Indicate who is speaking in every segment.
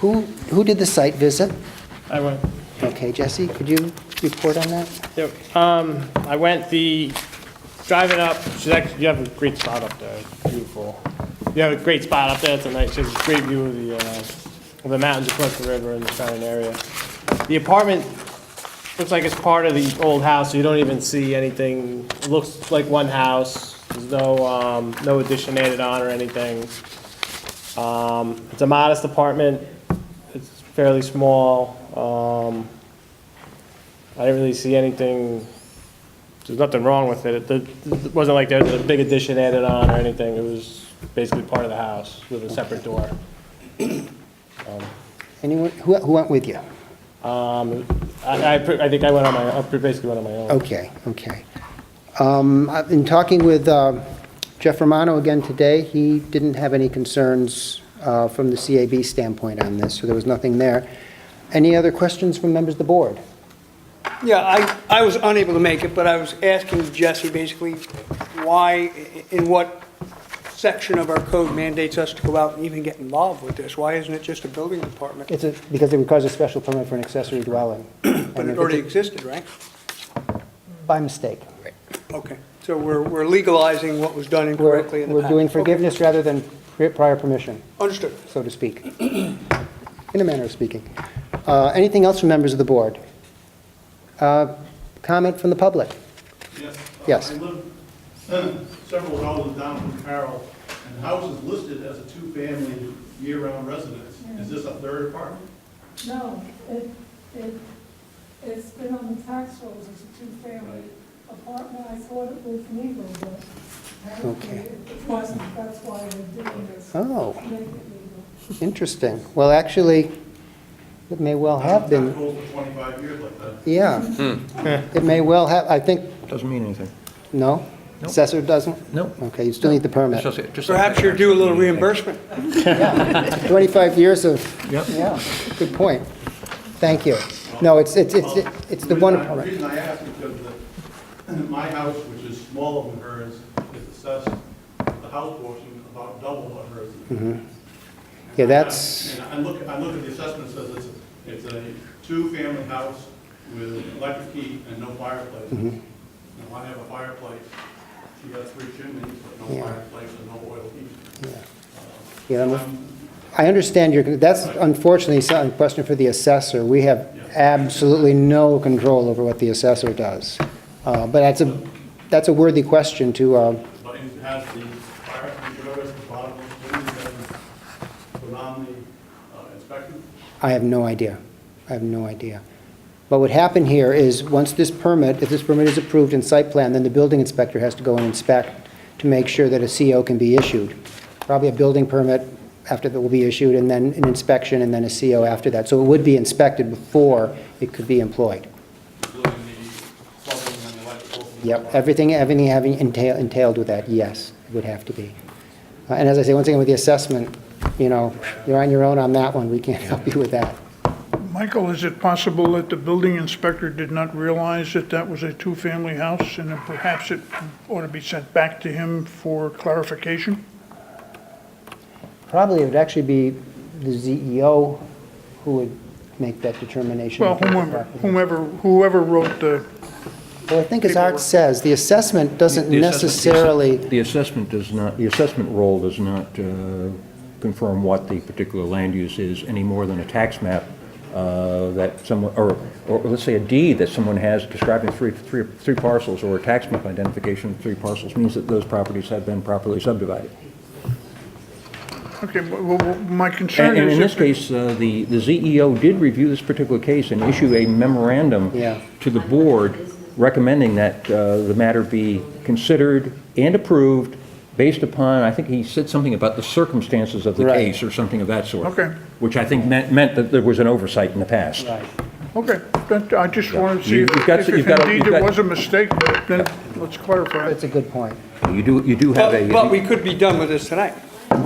Speaker 1: Who, who did the site visit?
Speaker 2: I went,
Speaker 1: Okay, Jesse, could you report on that?
Speaker 2: yep, um, I went the, driving up, she's actually, you have a great spot up there, It's beautiful. You have a great spot up there, it's a nice, it's a great view of the, uh, of the mountains across the river and the surrounding area. The apartment looks like it's part of the old house, so you don't even see anything, it looks like one house. There's no, um, no addition added on or anything. Um, it's a modest apartment, it's fairly small, um, I didn't really see anything, there's nothing wrong with it. It it wasn't like there was a big addition added on or anything. It was basically part of the house with a separate door.
Speaker 1: Anyone, who, who went with you?
Speaker 2: Um, I, I pre- I think I went on my, I basically went on my own.
Speaker 1: Okay, okay. Um, I've been talking with uh, Jeff Romano again today. He didn't have any concerns uh, from the CAB standpoint on this, so there was nothing there. Any other questions from members of the board?
Speaker 3: Yeah, I, I was unable to make it, but I was asking Jesse basically why, in what section of our code mandates us to go out and even get involved with this? Why isn't it just a building department?
Speaker 1: It's a, because it requires a special permit for an accessory dwelling.
Speaker 3: But it already existed, right?
Speaker 1: By mistake.
Speaker 3: Okay, so we're, we're legalizing what was done
Speaker 1: We're,
Speaker 3: incorrectly in the past.
Speaker 1: we're doing
Speaker 3: Okay,
Speaker 1: forgiveness rather than pri- prior permission.
Speaker 3: Understood.
Speaker 1: so to speak, in a manner of speaking. Uh, Anything else from members of the board? Uh, Comment from the public?
Speaker 4: Yes.
Speaker 1: Yes.
Speaker 4: I live several houses down from Carroll, and the house is listed as a two-family year-round residence. Is this a third apartment?
Speaker 5: No, it, it, it's been on the tax rolls as a two-family apartment, I thought it was legal, but apparently
Speaker 1: Okay.
Speaker 5: it wasn't, that's why they're doing this,
Speaker 1: Oh,
Speaker 5: make it legal.
Speaker 1: interesting. Well, actually, it may well have
Speaker 4: It's
Speaker 1: been,
Speaker 4: been for 25 years like that.
Speaker 1: yeah.
Speaker 6: Hmm.
Speaker 1: It may well have, I think,
Speaker 6: Doesn't mean anything.
Speaker 1: no?
Speaker 6: Nope.
Speaker 1: Assessor doesn't?
Speaker 6: Nope.
Speaker 1: Okay, you still need the permit.
Speaker 3: Perhaps you're due a little reimbursement.
Speaker 1: 25 years of,
Speaker 6: Yep.
Speaker 1: yeah, good point. Thank you. No, it's, it's, it's it's the one
Speaker 4: reason I- The
Speaker 1: apartment.
Speaker 4: reason I ask is because the- my house, which is smaller than hers, is assessed, the house portion, about double what hers is.
Speaker 1: Mm-hmm. Yeah, that's-
Speaker 4: And I and I look, I look at the assessment, it says it's, it's a two-family house with electric heat and no fireplace.
Speaker 1: Mm-hmm.
Speaker 4: Now, I have a fireplace, she got three chimneys, but no
Speaker 1: Yeah.
Speaker 4: fireplace and no oil heat.
Speaker 1: Yeah, I'm-
Speaker 4: Um,
Speaker 1: I understand your, that's unfortunately some- a question for the assessor. We have absolutely no control over what the assessor does. Uh, But that's a, that's a worthy question to, uh,
Speaker 4: But it has the fire, the bottom of the chimney, that was put on the uh, inspection.
Speaker 1: I have no idea. I have no idea. But what happened here is, once this permit, if this permit is approved in site plan, then the building inspector has to go and inspect to make sure that a CO can be issued. Probably a building permit after that will be issued, and then an inspection, and then a CO after that. So it would be inspected before it could be employed.
Speaker 4: including the plumbing and the electrical.
Speaker 1: Yep, everything, everything having entail- entailed with that, yes, it would have to be. Uh, And as I say, once again, with the assessment, you know, you're on your own on that one, we can't help you with that.
Speaker 7: Michael, is it possible that the building inspector did not realize that that was a two-family house, and that perhaps it ought to be sent back to him for clarification?
Speaker 1: Probably it would actually be the ZEO who would make that determination.
Speaker 7: Well, whomever, whomever, whoever wrote the,
Speaker 1: Well, I think as Art says, the assessment doesn't necessarily,
Speaker 6: The assessment does not, the assessment role does not uh, confirm what the particular land use is any more than a tax map uh, that someone, or, or let's say a deed that someone has describing three, three, three parcels, or a tax map identification of three parcels, means that those properties have been properly subdivided.
Speaker 7: okay, well, well, my concern
Speaker 6: And and
Speaker 7: is...
Speaker 6: in
Speaker 7: if
Speaker 6: this case, uh, the, the ZEO did review this particular case and issue a memorandum
Speaker 1: Yeah.
Speaker 6: to the board recommending that uh, the matter be considered and approved based upon, I think he said something about the circumstances of the
Speaker 1: Right.
Speaker 6: case or something of that sort.
Speaker 7: Okay.
Speaker 6: Which I think meant, meant that there was an oversight in the past.
Speaker 7: Okay, that- I just wanted to see
Speaker 6: You-
Speaker 7: if
Speaker 6: you've got-
Speaker 7: if
Speaker 6: you've got-
Speaker 7: indeed
Speaker 6: you've
Speaker 7: it
Speaker 6: got-
Speaker 7: was a mistake, then let's clarify.
Speaker 1: that's a good point.
Speaker 6: You do, you do have
Speaker 3: But, but
Speaker 6: a,
Speaker 3: we could be done with this tonight.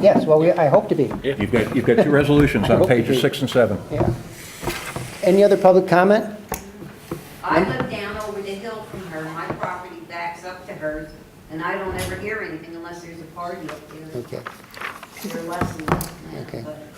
Speaker 1: Yes, well, we- I hope to be,
Speaker 6: you've got, you've got two resolutions
Speaker 1: I
Speaker 6: on
Speaker 1: hope you
Speaker 6: pages
Speaker 1: do.
Speaker 6: six and seven.
Speaker 1: yeah. Any other public comment?
Speaker 8: I live down over the hill from her, my property backs up to hers, and I don't ever hear anything unless there's a party up there.
Speaker 1: Okay.
Speaker 8: They're less than that,
Speaker 1: Okay.
Speaker 8: but